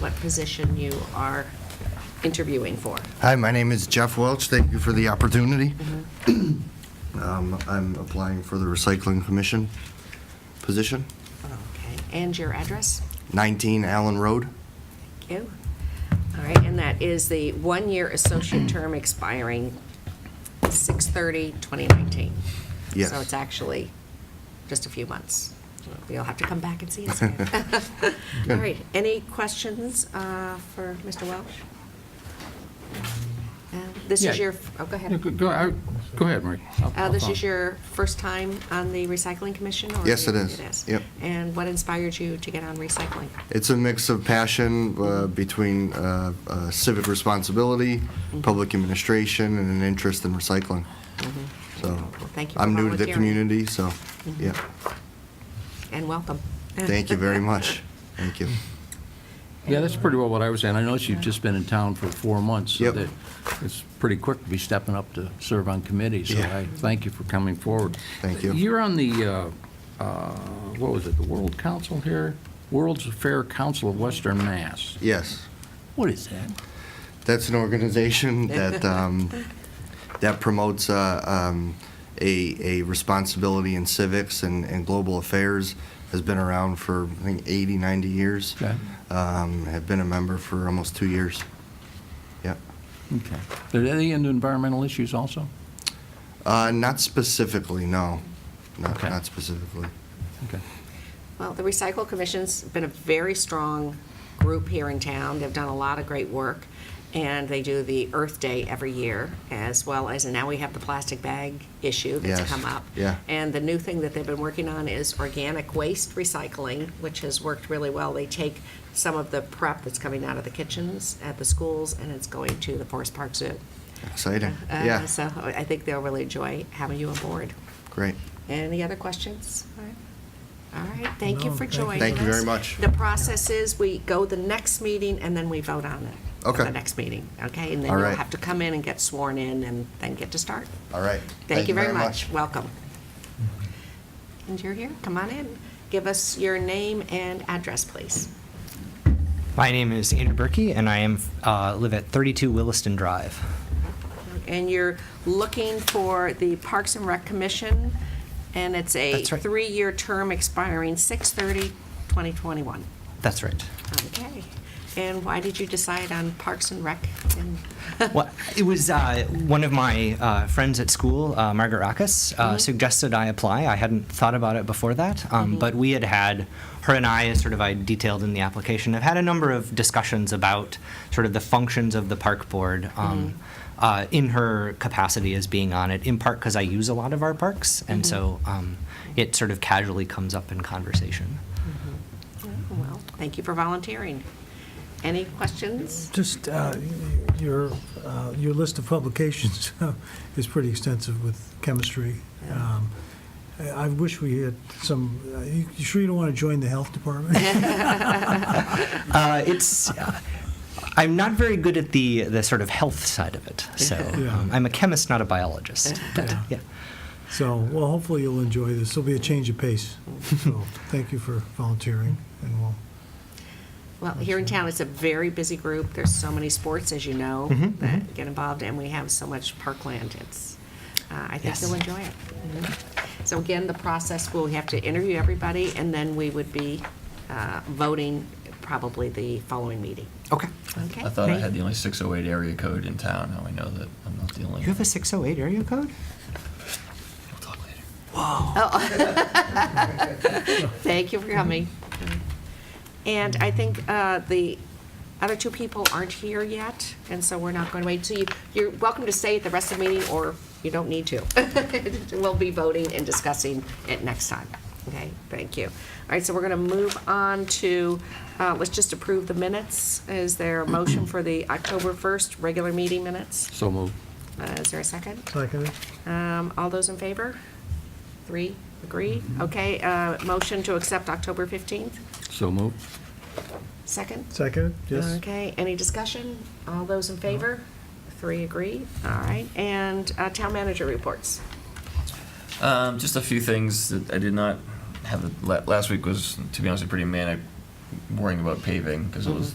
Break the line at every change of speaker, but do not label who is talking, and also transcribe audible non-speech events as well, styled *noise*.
what position you are interviewing for.
Hi, my name is Jeff Welch. Thank you for the opportunity.
Mm-hmm.
Um, I'm applying for the Recycling Commission position,
Okay, and your address?
19 Allen Road.
Thank you. All right, and that is the one-year
*clears throat*
associate term expiring 6/30/2019.
Yes.
So it's actually just a few months. We'll have to come back and see us again. *laughs* All
*laughs* Good.
right, any questions uh, for Mr. Welch? Uh, This is
Um, Yeah.
your, oh, go
Yeah,
ahead.
Go go- I- go ahead, Marie. I'll-
Uh,
I'll
This
follow.
is your first time on the recycling commission? or
Yes, it is.
It is.
Yep.
And what inspired you to get on recycling?
It's a mix of passion uh, between uh, uh, civic responsibility,
Mm-hmm.
public administration, and an interest in recycling. So,
Well, Mm-hmm. thank you for
I'm new to the
volunteering. Mm-hmm.
community, so, yeah.
And welcome.
Thank you very much. Thank you.
Yeah, that's pretty well what I was saying. I noticed you've just been in town for four months. so
Yep.
that It's pretty quick to be stepping up to serve on committees, so
Yeah.
I thank you for coming forward.
Thank you.
You're on the, uh, uh, what was it, the World Council here? World's Fair Council of Western Mass.
Yes.
What is that?
That's an
*laughs*
organization that um, that promotes uh, um, a, a responsibility in civics and, and global affairs. Has been around for I think 80, 90 years.
Okay.
Um, have been a member for almost two years. Yeah.
Okay. Are they into environmental issues also?
Uh, not specifically, no. Not,
Okay.
not specifically.
Okay.
Well, the Recycle Commission's been a very strong group here in town. They've done a lot of great work, and they do the Earth Day every year, as well as, and now we have the plastic bag issue that's
Yes,
come up.
yeah.
And the new thing that they've been working on is organic waste recycling, which has worked really well. They take some of the prep that's coming out of the kitchens at the schools, and it's going to the Forest Park Zoo.
Exciting.
Uh,
yeah.
So I think they'll really enjoy having you aboard.
Great.
Any other questions? All right. All right, thank you for joining us.
Thank you very much.
The process is, we go the next meeting, and then we vote on it. at
Okay.
The next meeting, okay? And then
All
you'll
right.
have to come in and get sworn in, and then get to start.
All right.
Thank you very much. Welcome. And you're here, come on in. Give us your name and address, please.
My name is Andrew Berkey, and I am uh, live at 32 Williston Drive.
And you're looking for the Parks and Rec Commission, and it's a
That's right.
three-year term expiring 6/30/2021.
That's right.
Okay. And why did you decide on Parks and Rec? And- *laughs*
well, it was uh, one of my uh, friends at school, uh, Margaret Rackus, uh, suggested I apply. I hadn't thought about it before that, um, but we had had her and I, as sort of I detailed in the application, have had a number of discussions about sort of the functions of the park board. Um, uh, in her capacity as being on it, in part because I use a lot of our parks, and so um, it sort of casually comes up in conversation.
Oh, Well, thank you for volunteering. Any questions?
Just uh, your, uh, your list of publications *laughs* is pretty extensive with chemistry. Um, I I wish we had some, uh, you you sure you don't want to join the health department?
Uh, it's. Uh, I'm not very good at the the sort of health side of it, so
Yeah.
um, I'm a chemist, not a biologist. But,
Yeah.
yeah.
So, well, hopefully you'll enjoy this. There'll be a change of pace. So, thank you for volunteering, and we'll,
Well, here in town, it's a very busy group. There's so many sports, as you know,
Mm-hmm,
that get involved, and we have so much parkland. It's, uh, I think
Yes.
you'll enjoy it. Mhm. So again, the process, we'll have to interview everybody, and then we would be uh, voting probably the following meeting.
Okay.
Okay?
I thought I had the only 608 area code in town. Now I know that I'm not the only.
You have a 608 area code?
We'll talk later.
Thank you for coming. And I think uh, the other two people aren't here yet, and so we're not going to wait. So you, you're welcome to stay at the rest of the meeting, or you don't need to. *laughs* We'll be voting and discussing it next time. Okay, thank you. All right, so we're going to move on to, uh, let's just approve the minutes. Is there a motion for the October 1st regular meeting minutes?
So moved.
Uh, Is there a second?
second it.
Um, All those in favor? Three, agree? Okay, uh, motion to accept October 15th,
So moved.
second?
Second it, yes?
Okay, any discussion? All those in favor? Three, agree? All right, and uh, town manager reports.
Um, just a few things that I did not have. The, la- last week was, to be honest, pretty manic worrying about paving because it was